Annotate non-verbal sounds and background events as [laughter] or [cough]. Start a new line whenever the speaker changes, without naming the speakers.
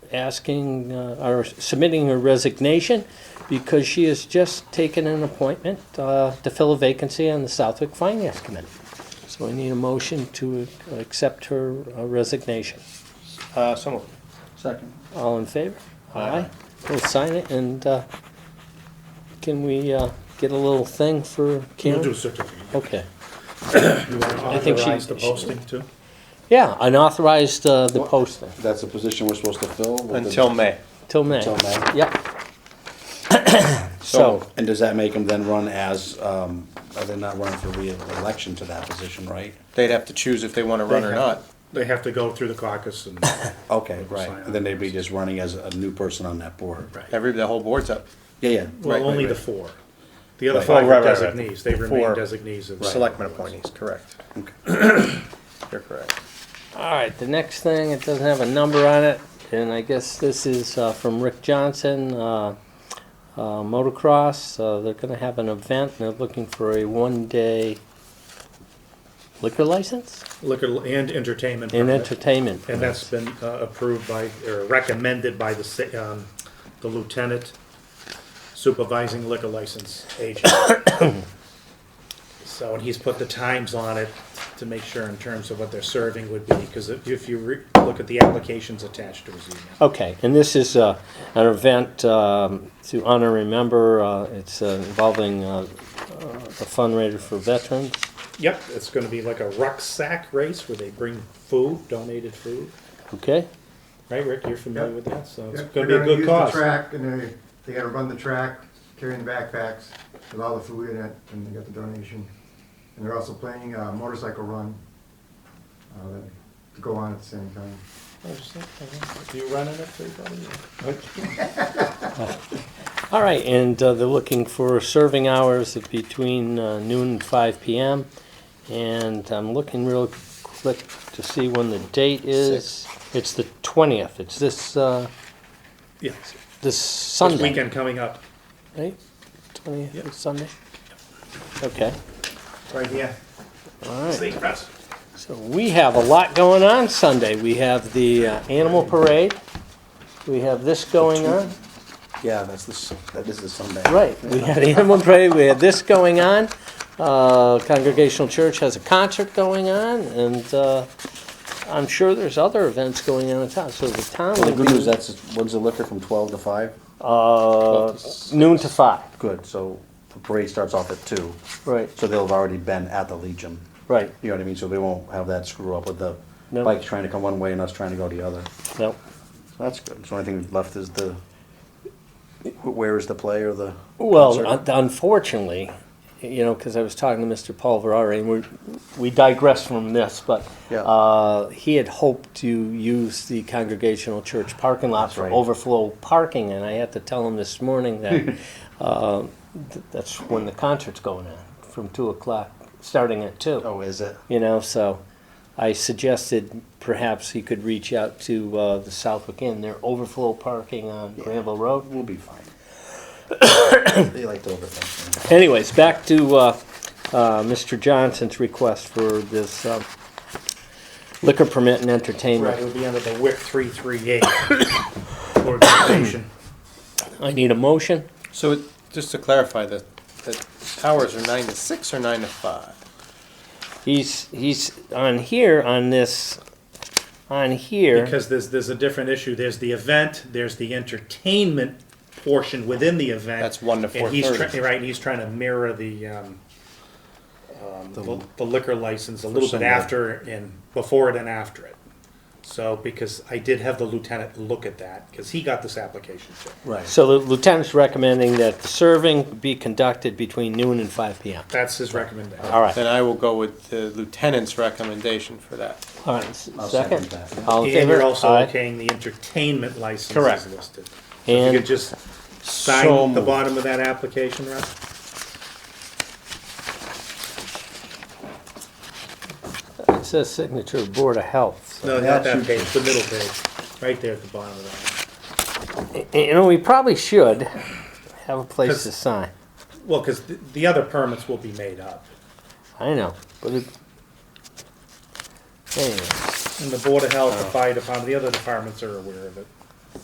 asking, uh, or submitting her resignation because she has just taken an appointment uh, to fill a vacancy on the Southwick Finance Committee. So I need a motion to accept her uh, resignation.
Uh, so moved.
Second.
All in favor?
Aye.
We'll sign it and uh, can we uh, get a little thing for
We'll do
Karen?
certificate.
Okay.
You want to
I think she-
authorize the posting too?
Yeah, unauthorized uh, the posting
That's the position we're supposed to fill? with the-
Until May.
till May.
Till May.
Yep.
So-
So,
And does that make them then run as, um, are they not running for reelection to that position, right?
They'd have to choose if they want to run or not.
They have to go through the
[laughs]
caucus and,
Okay, right, and then they'd be just running as a new person on that board.
Right.
Every, the whole board's up.
Yeah, yeah,
Right,
well, only
right,
the
right.
four. The other
Right.
five
Oh,
are
right, right, right.
designees, they
The
remain
four
designees of. the
Selectmen appointees, correct. [clears throat] You're correct.
all right, the next thing, it doesn't have a number on it, and I guess this is uh, from Rick Johnson, uh, uh, motocross. Uh, They're going to have an event, and they're looking for a one-day liquor license
Liquor and entertainment.
and
permit.
entertainment.
And that's been uh, approved by, or recommended by the, sa- um, the lieutenant supervising liquor license
[coughs]
agent. So, and he's put the times on it to make sure in terms of what they're serving would be, because if if you re- look at the applications attached to his email.
Okay, and this is uh, an event um, to honor and remember. uh, It's uh, involving uh, uh, the fundraiser for veterans.
Yep, it's gonna be like a rucksack race where they bring food, donated food.
Okay,
Right, Rick, you're familiar
Yep.
with that, so it's
Yeah,
gonna be a
They're gonna
good
use the
cause.
track, and they, they gotta run the track, carrying the backpacks with all the food in it, and they got the donation. And they're also planning a motorcycle run, uh, that- to go on at the same time.
Oh, just like, uh, You running it, too, buddy?
all right, and uh, they're looking for serving hours of between uh, noon and 5 PM. And I'm looking real quick to see when the date is. It's the 20th, it's this, uh,
Yeah,
this
this
Sunday.
weekend coming up.
Right, 20th,
Yep.
is Sunday? Okay,
Right here.
all right.
State press.
So we have a lot going on Sunday. We have the uh, animal parade. We have this going on.
yeah, that's this, that is the Sunday.
Right, we had animal parade, we had this going on. Uh, Congregational Church has a concert going on, and uh, I'm sure there's other events going on in town. So the town
Well, The
will
good news,
be
that's, when's the liquor from twelve to five?
uh, noon to five.
Good, so the parade starts off at two,
Right,
so they'll have already been at the Legion.
right.
You know what I mean, so they won't have that screw up with the
No.
bikes trying to come one way and us trying to go the other.
No.
That's good. So only thing left is the, wh- where is the play or the?
Well, un-
concert?
unfortunately, you know, because I was talking to Mr. Paul Verari, and we we digress from this, but
Yeah.
uh, he had hoped to use the Congregational Church parking lot
That's
for
right.
overflow parking, and I had to tell him this morning
[laughs]
that uh, th- that's when the concert's going on, from two o'clock, starting at two.
Oh, is it?
You know, so I suggested perhaps he could reach out to uh, the Southwick Inn, their overflow parking on Granville Road.
We'll be [coughs] fine. They like to overthink things.
Anyways, back to uh, uh, Mr. Johnson's request for this uh, liquor permit and
Right,
entertainment.
it'll be under the
[coughs]
WIC 338 organization.
I need a motion.
So it- just to clarify, the, the hours are nine to six or nine to five?
He's, he's on here, on this, on here.
Because there's, there's a different issue. There's the event, there's the entertainment portion within the event.
That's one to
And he's
4:30.
trying, right, and he's trying to mirror the, um, um, the the liquor license a little bit
Sunday.
after and, before it and after it. So, because I did have the lieutenant look at that, because he got this application too.
Right.
So the lieutenant's recommending that the serving be conducted between noon and five PM.
That's his recommendation.
All right,
Then I will go with the lieutenant's recommendation for that.
all right, s-
I'll second
second.
that.
All in
And you're
favor?
also
Aye.
okaying the entertainment license
Correct.
is listed. So If you
And
could just
So
sign the
moved.
bottom of that application, Russ?
it says signature of Board of Health.
No, not that page, the middle page, right there at the bottom of that.
You know, we probably should have a place to sign.
Well, because the other permits will be made up.
I know, but it. Anyway,
And the Board of Health, the Fire Department, the other departments are aware of it.